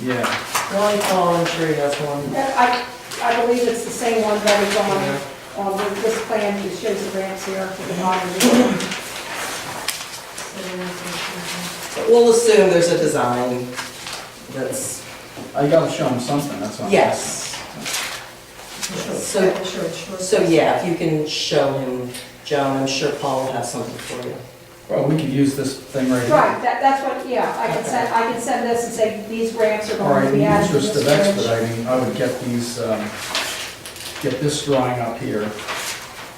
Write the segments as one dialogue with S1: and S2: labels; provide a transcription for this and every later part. S1: Yeah,
S2: Ronnie Paul, I'm sure he has one.
S3: I, I believe it's the same one that is on, on the- this plan, he shows the ramps here for the bottom.
S2: But we'll assume there's a design that's,
S1: I gotta show him something, that's all.
S2: yes. So, so yeah, if you can show him, Joan, I'm sure Paul will have something for you.
S1: Well, we could use this thing right here.
S3: Right, that, that's what, yeah, I can send, I can send this and say, these ramps are
S1: All
S3: going
S1: right,
S3: to
S1: in
S3: be
S1: the
S3: added to
S1: interest
S3: this
S1: of
S3: bridge.
S1: expediting, I would get these, um, get this drawing up here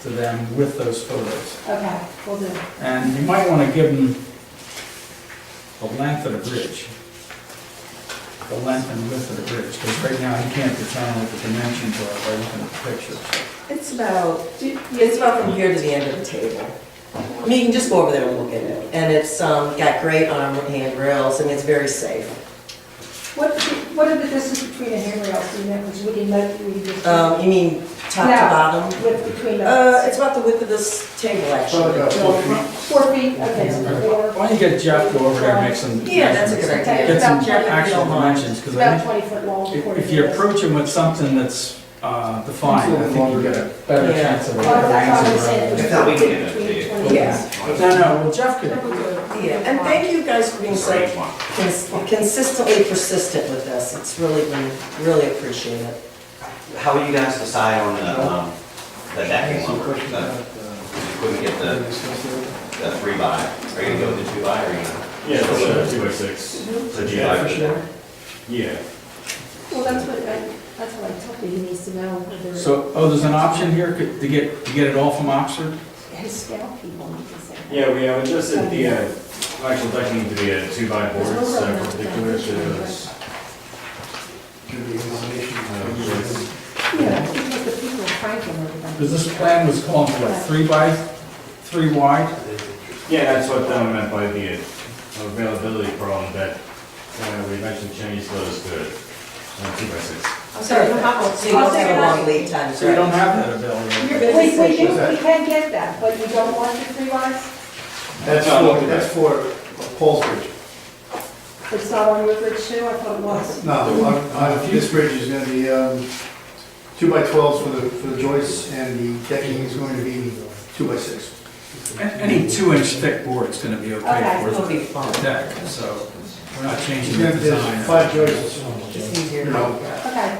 S1: to them with those photos.
S3: Okay, we'll do.
S1: And you might want to give them the length of the bridge, the length and width of the bridge, because right now you can't determine what the dimensions are by looking at the picture.
S2: It's about, it's about from here to the end of the table. I mean, you can just go over there and look at it, and it's, um, got great arm handrails, and it's very safe.
S3: What, what are the distance between the handrails, do you know, because we didn't know, we just.
S2: Um, you mean top to
S3: Yeah.
S2: bottom?
S3: With between
S2: Uh,
S3: the,
S2: it's about the width of this table, actually.
S3: four feet, okay, so four.
S1: Why don't you get Jeff to go over there and make some...
S2: Yeah, that's a good idea.
S1: Get some
S3: It's about
S1: actual
S2: 20 feet long.
S1: dimensions,
S3: It's
S1: because I
S3: about
S1: think
S3: twenty foot long.
S1: if-
S3: four
S1: if
S3: feet
S1: you
S3: wide.
S1: approach them with something that's uh, defined, I think you get a better
S2: Yeah.
S1: chance of... a
S3: Well, that's what I said, it
S1: answer.
S3: was
S4: I thought we
S3: between
S4: did it, yeah.
S3: 20
S2: Yeah.
S3: feet.
S1: No, no, well, Jeff could...
S2: Yeah, and thank you guys for being so
S4: Great one.
S2: cons- consistently persistent with this. It's really been, really appreciate it.
S4: How will you guys decide on the, um, the decking lumber? The- You couldn't get the, the three by, are you gonna go with the two by or are you? gonna-
S5: Yeah, that's a two by six.
S4: The two by for sure.
S5: Yeah.
S3: Well, that's what, I- that's what I told you, he needs to know whether.
S1: So, oh, there's an option here could- to get, to get it all from Oxford?
S3: His scale people need to say.
S5: Yeah, we have adjusted the uh, actual decking to be a two by board, so in particular to those. uh,
S3: Yeah, because the people in Franklin are the
S1: Because this plan was calling for like three by, three wide?
S5: Yeah, that's what I meant by the uh, availability problem that uh, we mentioned Chinese those to uh, two by six.
S3: Sorry,
S2: So
S3: how-
S2: you don't have a long lead time,
S1: So you
S2: sorry.
S1: don't have that available.
S3: We, we do, we can get that, but you don't want the three wise,
S6: That's
S5: No,
S6: for,
S5: okay.
S6: that's for Paul's Bridge.
S3: it's not on your bridge too, I thought it was.
S6: No, I- I- this bridge is gonna be, um, two by twelves for the, for the joists, and the decking is going to be two by six.
S1: A- Any two-inch thick board's gonna be okay
S3: Okay,
S2: It'll
S1: for
S2: be fun.
S1: the deck, so we're not changing the
S6: There's
S1: design.
S6: five joists.
S2: It's easier.
S6: No.
S3: Okay,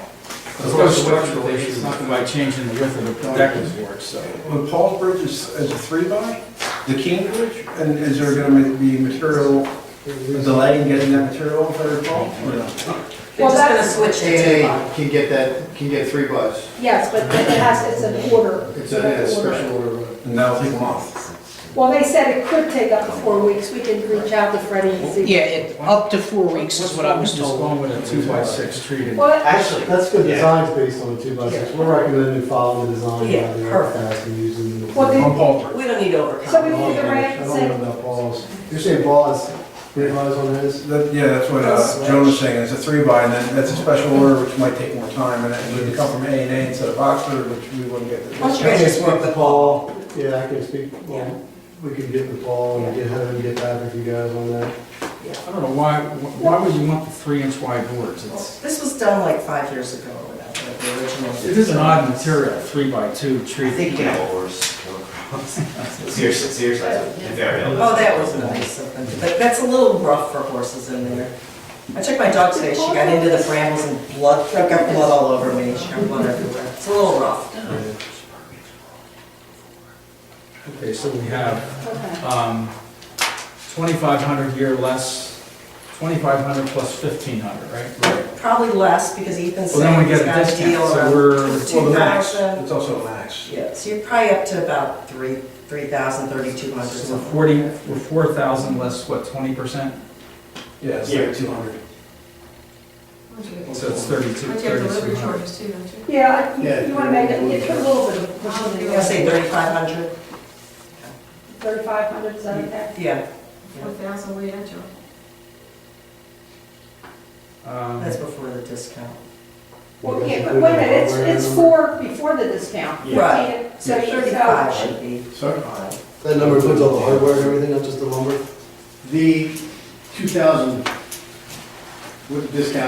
S1: Let's go structural issues, not by changing the width of the deck is worse, so.
S7: When Paul's Bridge is, is a three by,
S6: The King Bridge?
S7: and is there gonna be material, delay in getting that material if I recall? or no?
S2: They're
S3: Well,
S2: just gonna
S3: that's-
S2: switch it to
S6: AA
S2: five.
S6: can get that, can get three buys.
S3: yes, but it has, it's an order.
S6: It's a a special order.
S7: And that'll take a month.
S3: Well, they said it could take up to four weeks, we can reach out to Freddie and see.
S8: Yeah, it, up to four weeks is what I was
S1: What's
S8: told.
S1: wrong with a two-by-six treated?
S3: Well, that-
S4: Actually,
S9: That's good,
S4: Yeah.
S9: design's based on two by six, we're recommending following the design
S2: Yeah,
S9: rather than
S2: perfect.
S9: fast and using the.
S3: Well,
S1: On
S3: then-
S1: Paul,
S2: We don't need to
S3: so we
S2: overcome.
S3: need to
S9: I
S3: write
S9: don't
S3: and
S9: know
S3: say,
S9: about balls, you're saying balls, three buys on this?
S7: That, yeah, that's what uh, Joan was saying, it's a three by, and then that's a special order, which might take more time, and it would come from A and A instead of Oxford, which we wouldn't get.
S2: Why
S7: to.
S2: don't you guys just work with Paul?
S9: Yeah, I can speak,
S2: Yeah.
S9: well, we can get with Paul and get him and get back with you guys on that.
S1: I don't know, why, why would you want the three-inch wide boards? It's,
S2: This was done like five years ago or whatever, the original.
S1: it is an odd material, three-by-two
S4: I
S1: treated.
S4: think you can have oars. Seriously, seriously, if they're available.
S2: Oh, that was nice of them, but that's a little rough for horses in there. I took my dog today, she got into the brambles and blood, I got blood all over me, she got blood everywhere. It's a little rough.
S1: Okay, so we have
S3: okay,
S1: um, 2,500 year less, 2,500 plus 1,500, right? Right.
S2: Probably less because Ethan
S1: Well, then
S2: said
S1: we
S2: he's
S1: get a
S2: got a deal
S1: discount, so
S2: around.
S1: we're,
S7: Well, the max,
S2: 2,000.
S7: it's also a max.
S2: Yeah, so you're probably up to about three, three thousand, thirty-two hundred
S1: so we're
S2: something.
S1: 40, we're 4,000 less, what, 20%?
S7: Yeah, it's
S5: Yeah.
S7: like two hundred.
S1: So it's 32, 3,200.
S3: yeah,
S6: Yeah.
S3: you- you wanna make it, you put a little bit of. push in
S2: You're
S3: there.
S2: gonna say thirty-five hundred?
S3: Thirty-five hundred, is that okay?
S2: Yeah, that's
S1: Um,
S2: before the discount.
S3: Well, yeah, but wait a minute, it's, it's four before the discount.
S5: Yeah.
S2: Right.
S3: So you
S2: Thirty-five should be.
S6: Sorry?
S9: That number includes all the hardware and everything, not just the lumber?
S6: The two thousand with the discount